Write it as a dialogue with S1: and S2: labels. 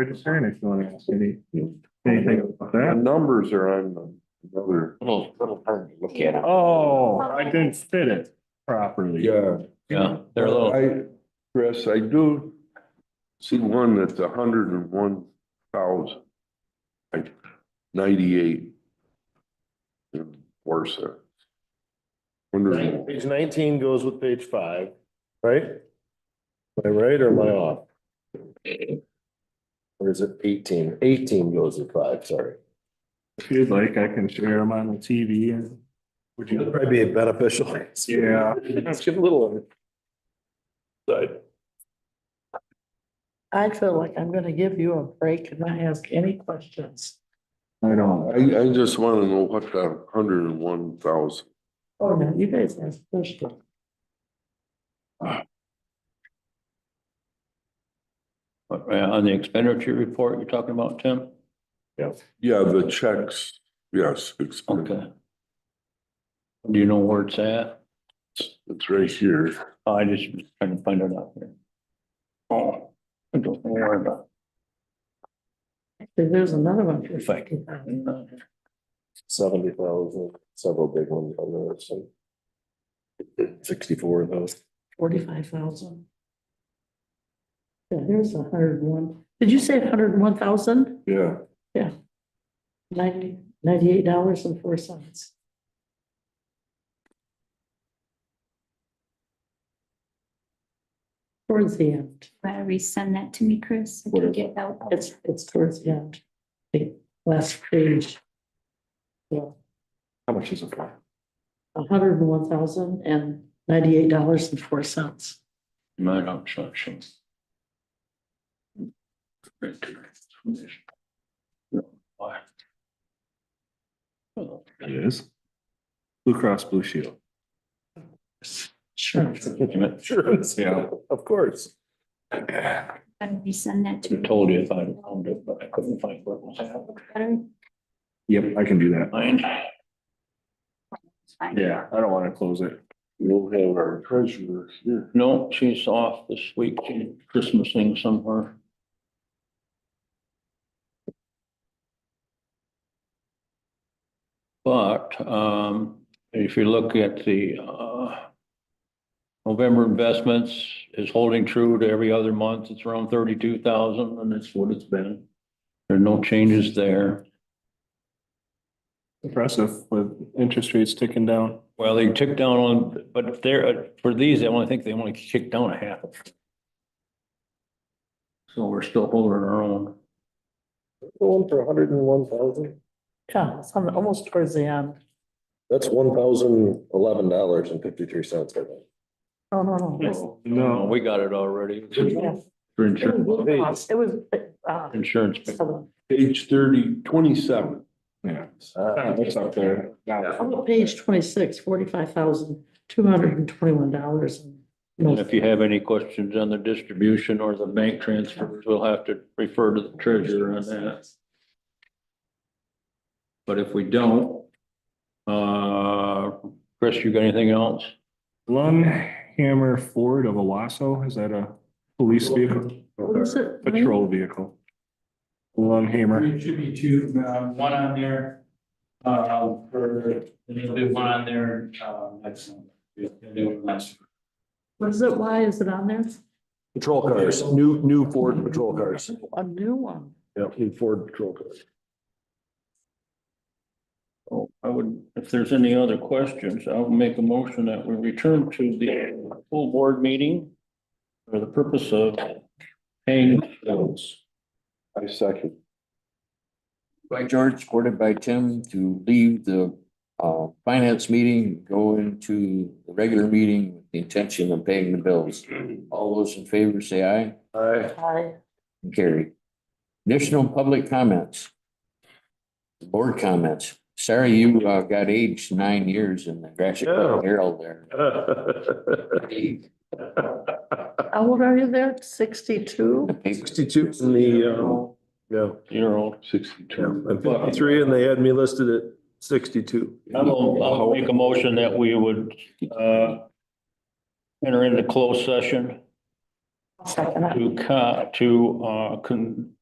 S1: registering if you want to ask any, anything about that.
S2: numbers are on the- another.
S3: Little, little hard to look at. it.
S1: Oh, I didn't fit it properly.
S2: Yeah.
S3: Yeah, they're a little,
S2: I, Chris, I do see one that's a hundred and one thousand, like ninety-eight. and Worse. Wonder,
S4: Page nineteen goes with page five, right? Am I right or am I off? Or is it eighteen? Eighteen goes with five, sorry.
S1: If you'd like, I can share them on the TV and. Would you?
S4: Probably be beneficial.
S1: Yeah.
S4: Let's get a little. Side.
S5: I feel like I'm gonna give you a break and not ask any questions.
S1: I
S2: I,
S1: don't.
S2: I just want to know what that hundred and one thousand.
S5: Oh, no, you guys ask questions.
S3: uh, on the expenditure report you're talking about, Tim?
S2: Yeah, the checks, yes, it's,
S3: Okay. Do you know where it's at?
S2: it's right here.
S3: I just was trying to find it out here. Oh, I don't worry about
S5: Actually, There's another one. for
S3: If I can-
S5: 50,000.
S3: it.
S4: Seventy thousand, several big ones on there, so. Sixty-four of those.
S5: Forty-five thousand. Yeah, there's a hundred and one. Did you say a hundred and one thousand?
S2: Yeah,
S5: Ninety, ninety-eight dollars and four cents. Towards the end.
S6: Why resend that to me, Chris? I can get that.
S5: It's, it's towards the end. The last page. Yeah.
S4: How much is it for?
S5: hundred and one thousand and ninety-eight dollars and four cents.
S3: My obsession. Right there. Why? Oh,
S1: It is. Blue Cross Blue Shield.
S5: Sure.
S3: damn it.
S4: Sure, it's-
S1: Yeah.
S4: of course.
S6: I'll resend that to
S3: I
S6: me.
S3: told you if I found it, but I couldn't find what was happening.
S6: Better
S1: Yep, I can do that.
S3: Mine.
S6: find it.
S1: Yeah, I don't want to close it.
S2: we'll have our treasurer here.
S3: No, she's off this week, she's Christmasing somewhere. But, um, if you look at the, uh, November investments is holding true to every other month, it's around thirty-two thousand, and that's what it's been. There are no changes there.
S1: Impressive with interest rates ticking down.
S3: Well, they took down on, but there, uh, for these, I only think they only kicked down a half. So we're still holding our own.
S4: One for hundred and one thousand?
S5: Yeah, it's on- almost towards the end.
S4: That's one thousand eleven dollars and fifty-three cents, I think.
S5: No, no, no. it was-
S1: No,
S3: Oh, We got it already.
S5: yeah.
S3: For
S5: It
S3: insurance,
S5: was, it was, uh,
S3: insurance.
S5: seven.
S2: Page thirty, twenty-seven.
S1: yeah, it's up there.
S5: I'm on page twenty-six, forty-five thousand, two hundred and twenty-one dollars.
S3: And if you have any questions on the distribution or the bank transfers, we'll have to refer to the treasurer on that. But if we don't, uh, Chris, you got anything else?
S1: Hammer Ford of Owasso, is that a police vehicle?
S5: What is it?
S1: Patrol vehicle. Hammer.
S7: There should be two, uh, one on there, uh, for, there'll be one on there, uh, next month. We'll do it last.
S5: What is it? Why is it on there?
S4: Patrol cars, new, new Ford patrol cars.
S5: A new one.
S4: Yeah, new Ford patrol cars.
S3: Oh, I would, if there's any other questions, I'll make a motion that we return to the full board meeting for the purpose of paying bills.
S2: I second.
S8: by George, supported by Tim, to leave the uh finance meeting, go into the regular meeting with the intention of paying the bills. All those in favor say aye
S4: Aye.
S5: Hi.
S8: and carry. Additional public comments. Board comments. Sorry, you uh got aged nine years in the Grashit
S4: Yeah.
S8: Herald there.
S5: How old are you there? Sixty-two?
S4: Sixty-two in the, um, yeah,
S3: Year old.
S4: yeah,
S2: Sixty-two.
S4: I'm fifty-three and they had me listed at sixty-two.
S3: I'll, I'll make a motion that we would, uh, enter into closed session
S5: Second.
S3: to, co- to, uh, con-